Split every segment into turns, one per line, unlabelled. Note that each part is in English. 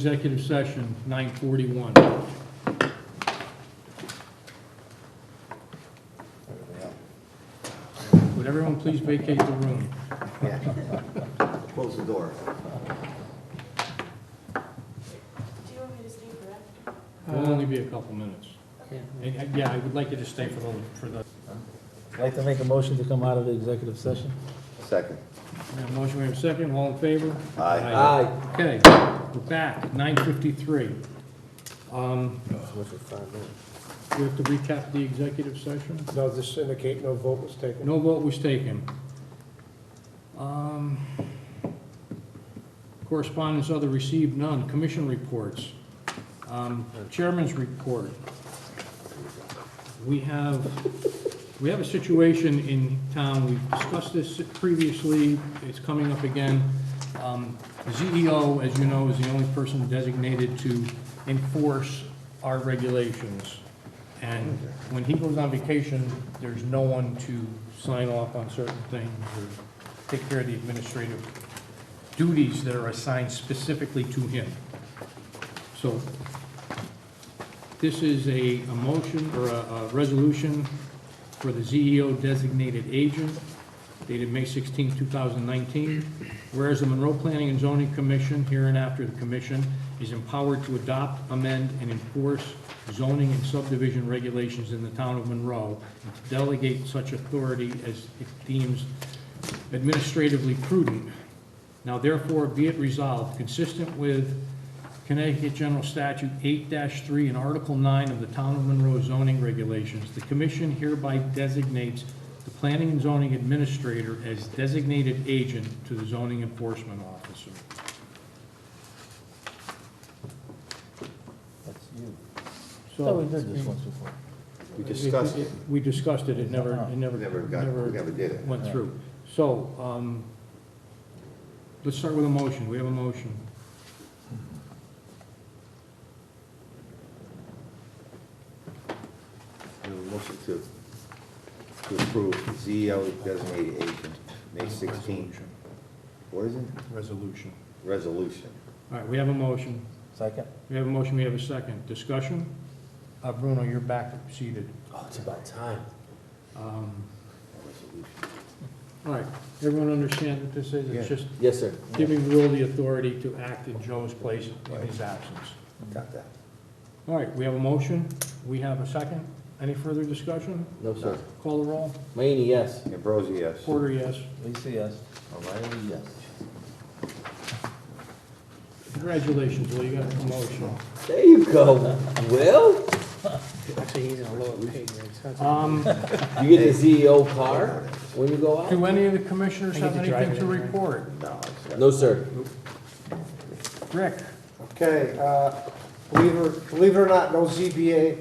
Executive session, 9:41. Would everyone please vacate the room?
Close the door.
Do you want me to stay for that?
It'll only be a couple minutes. And, uh, Yeah, I would like you to stay for the, for the,
I'd like to make a motion to come out of the executive session.
Second.
we have a motion, we have a second, all in favor?
Aye.
Okay, we're back, 9:53. Um, We have to recap the executive session?
No, just indicate no vote was taken.
No vote was taken. Um, Correspondence other received, none. Commission reports. Um, Chairman's report. We have, we have a situation in town, we've discussed this previously, it's coming up again. Um, ZEO, as you know, is the only person designated to enforce our regulations. And when he goes on vacation, there's no one to sign off on certain things or take care of the administrative duties that are assigned specifically to him. So this is a, a motion or a, a resolution for the ZEO designated agent dated May 16, 2019. Whereas the Monroe Planning and Zoning Commission, hereinafter the commission, is empowered to adopt, amend, and enforce zoning and subdivision regulations in the town of Monroe, and to delegate such authority as it deems administratively prudent. Now therefore be it resolved, consistent with Connecticut General Statute eight three and Article nine of the Town of Monroe zoning regulations, the commission hereby designates the planning and zoning administrator as designated agent to the zoning enforcement officer.
That's you. I
So
thought we did this once before.
We discussed it.
We discussed it, it never, it never,
Never got, we
never
never did it.
went through. So, um, let's start with a motion, we have a motion.
We have a Motion to, to approve ZEO designated agent, May 16. What is it?
Resolution.
Resolution.
All right, we have a motion.
Second?
We have a motion, we have a second. Discussion? Uh, Bruno, you're back seated.
Oh, it's about time.
Um,
Resolution.
All right, everyone understand what this is? It's
Yeah.
just
Yes, sir.
giving Will the authority to act in Joe's place in his absence.
Got that.
All right, we have a motion, we have a second. Any further discussion?
No, sir.
Call the roll.
Mayini, yes.
Ambrosi, yes.
Porter, yes.
Lisa, yes.
O'Reilly, yes.
Congratulations, Will, you got a promotion.
There you go. Will,
Actually, he's in a lower pay grade, so that's.
Um,
you get the CEO car when you go out?
Do any of the commissioners
I
have
get to drive
anything to
it anyway.
report?
No, it's not.
No, sir.
Rick?
Okay, uh, believe it, believe it or not, no ZBA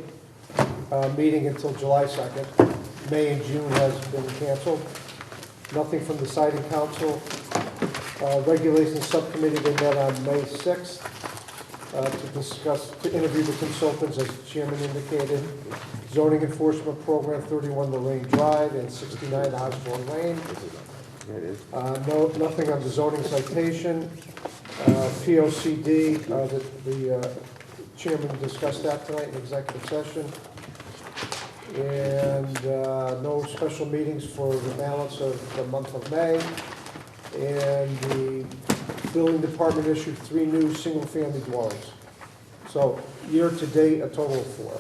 uh, meeting until July 2nd. May and June has been canceled. Nothing from the siding council. Uh, Regulations Subcommittee, they met on May 6th uh, to discuss, to interview the consultants, as the chairman indicated. Zoning Enforcement Program, 31 Lorraine Drive and 69 Osborne Lane.
Yeah, it is.
Uh, No, nothing on the zoning citation. Uh, POCD, uh, the- the uh, chairman discussed that tonight in executive session. And uh, no special meetings for the balance of the month of May. And the building department issued three new single-family dwellings. So year-to-date, a total of four.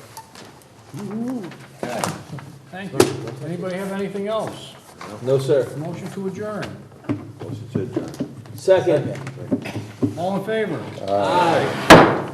Thank you. Anybody have anything else?
No, sir.
Motion to adjourn.
Motion to adjourn.
Second.
All in favor?
Aye.